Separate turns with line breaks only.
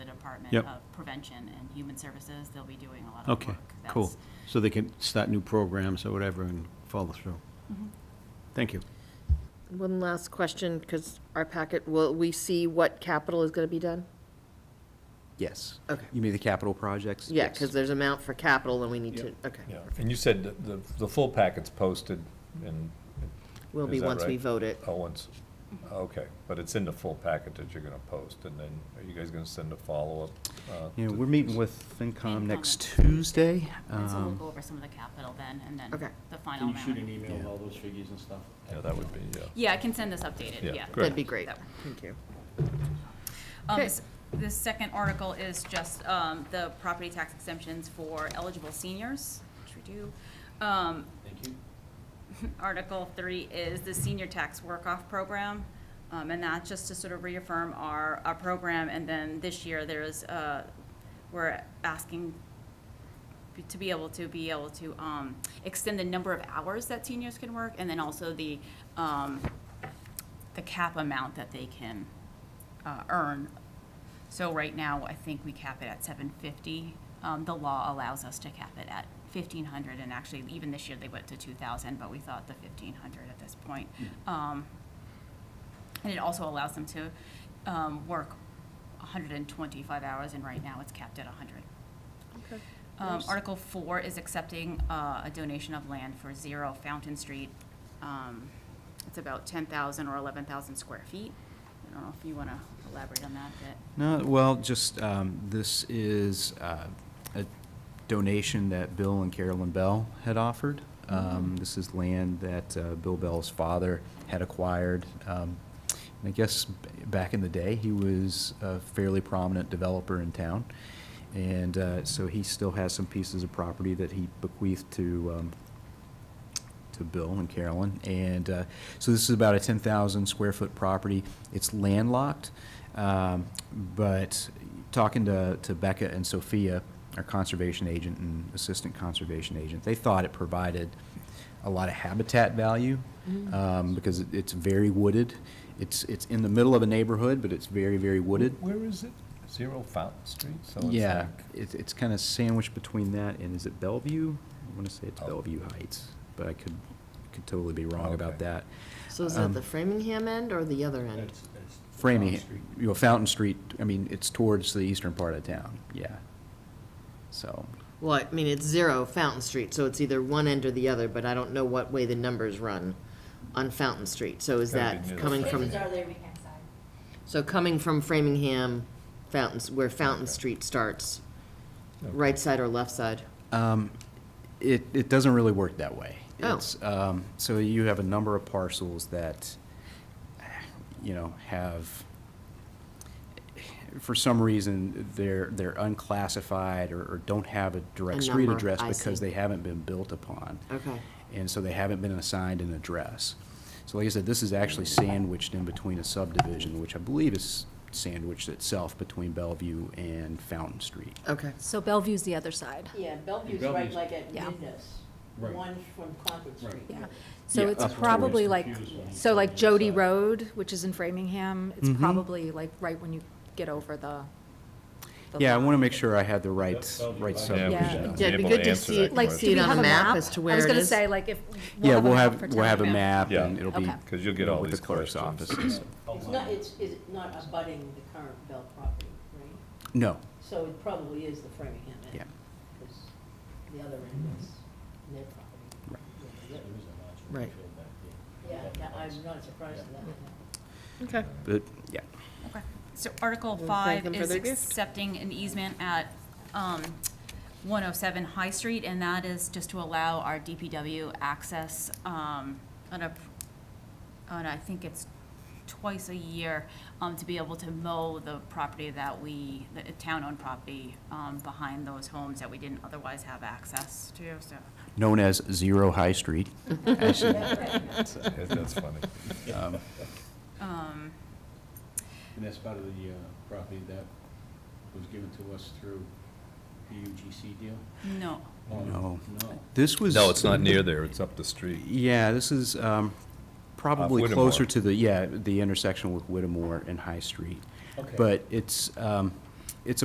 Department
Yep.
of Prevention and Human Services. They'll be doing a lot of
Okay,
work.
cool.
That's-
So they can start new programs or whatever and follow through. Thank you.
One last question, because our packet, will we see what capital is going to be done?
Yes.
Okay.
You mean the capital projects?
Yeah,
Yes.
because there's amount for capital and we need to,
Yeah.
okay.
Yeah, and you said that the, the full packet's posted and,
Will
Is
be
that
once we
right?
vote it.
oh, once, okay, but it's in the full packet that you're gonna post, and then are you guys gonna send a follow-up? uh,
Yeah,
to-
we're meeting with
FinCom.
FinCom next Tuesday.
And so we'll
Um,
go over some of the capital then, and then
Okay.
the final
Can you
round.
shoot an e- email with
Yeah.
all those figures and stuff?
Yeah, that would be, yeah.
Yeah, I can send this updated,
Yeah,
yeah.
great.
That'd be great.
That-
Thank you.
Um,
Okay.
s- The second article is just um, the property tax exemptions for eligible seniors, which we do. Um,
Thank you.
Article three is the senior tax work-off program. Um, and that's just to sort of reaffirm our, our program, and then this year there is, uh, we're asking be- to be able to, be able to, um, extend the number of hours that seniors can work, and then also the, um, the cap amount that they can, uh, earn. So right now, I think we cap it at seven fifty. Um, the law allows us to cap it at fifteen hundred, and actually, even this year, they went to two thousand, but we thought the fifteen hundred at this point. Um, and it also allows them to, um, work hundred and twenty-five hours, and right now it's capped at hundred. Um, Article four is accepting, uh, a donation of land for Zero Fountain Street. Um, it's about ten thousand or eleven thousand square feet. I don't know if you wanna elaborate on that a
No, well, just, um, this is, uh, a donation that Bill and Carolyn Bell had offered. Um, this is land that, uh, Bill Bell's father had acquired. Um, and I guess b- back in the day, he was a fairly prominent developer in town. And, uh, so he still has some pieces of property that he bequeathed to, um, to Bill and Carolyn. And uh, so this is about a 10,000 square foot property. It's landlocked, um, but talking to to Becca and Sophia, our conservation agent and assistant conservation agent, they thought it provided a lot of habitat value um, because it- it's very wooded. It's, it's in the middle of a neighborhood, but it's very, very wooded.
Where is it? Zero Fountain Street? So it's
Yeah,
like-
Oh, it's, it's kind of sandwiched between that and is it Bellevue? I want to say it's
Oh.
Bellevue Heights, but I could, could totally be wrong about
Okay.
that.
So is that
Um,
the Framingham end or the other end?
That's- that's the
Framing,
Fountain Street.
you know, Fountain Street, I mean, it's towards the eastern part of town, yeah. So,
Well, I mean, it's zero Fountain Street, so it's either one end or the other, but I don't know what way the numbers run on Fountain Street. So is
Gotta be
that
near
coming
Framingham.
from,
Places are Framingham side.
so coming from Framingham, Fountains, where Fountain Street starts, right side or left side?
um, it, it doesn't really work that way.
Oh.
It's, um, so you have a number of parcels that, you know, have, for some reason, they're, they're unclassified or, or don't have a
A
direct street
number,
address
I
because
see.
they haven't been built upon.
Okay.
and so they haven't been assigned an address. So like I said, this is actually sandwiched in between a subdivision, which I believe is sandwiched itself between Bellevue and Fountain Street.
Okay.
So Bellevue's the other side,
Yeah, Bellevue's
Bellevue's-
right like at
Yeah.
Midness, the
Right.
one from Concord Street.
yeah. So
Yeah, that's what
it's
I was
probably like,
confused when you
so
said
like
the
Jody
side.
Road, which is in Framingham, it's
Mhm.
probably like right when you get over the. the
Yeah, I want to
line.
make sure I had the right,
Bellevue, right.
right
Yeah.
subdivision.
Yeah,
be
it'd be
able
good
to
to
answer
see,
that
like,
question.
see it
Do we
on
have
a map as to where it is.
I was gonna say, like, if.
Yeah, we'll have,
for
we'll have a
town.
map
Yeah.
and it'll be.
Okay.
Because you'll get all
with the
these
clerk's
questions.
offices.
Oh,
It's not, it's, is it not abutting the current Bell property, right?
No,
So it probably is the Framingham end.
Yeah.
Because the other end is their property.
Right.
Yeah,
There is a large
Right.
field back
Yeah,
there.
yeah, I'm not surprised at that.
Okay.
but, yeah.
bit. Okay. So Article
Thank
five
them for
is
their gift.
accepting an easement at, um, one oh seven High Street, and that is just to allow our DPW access, um, on a, on, I think it's twice a year, um, to be able to mow the property that we, the town-owned property, um, behind those homes that we didn't otherwise have access to, so.
Known as Zero High Street. Actually,
Yeah, That's funny.
um,
Um,
And that's part of the uh, property that was given to us through the UGC deal?
no.
Oh,
Mm-hmm.
No.
No.
This was.
No, it's not near there, it's up the street.
Yeah, this is um, probably
Uh, Whittemore.
closer to the, yeah, the intersection with Whittemore and High Street.
Okay.
But it's, um,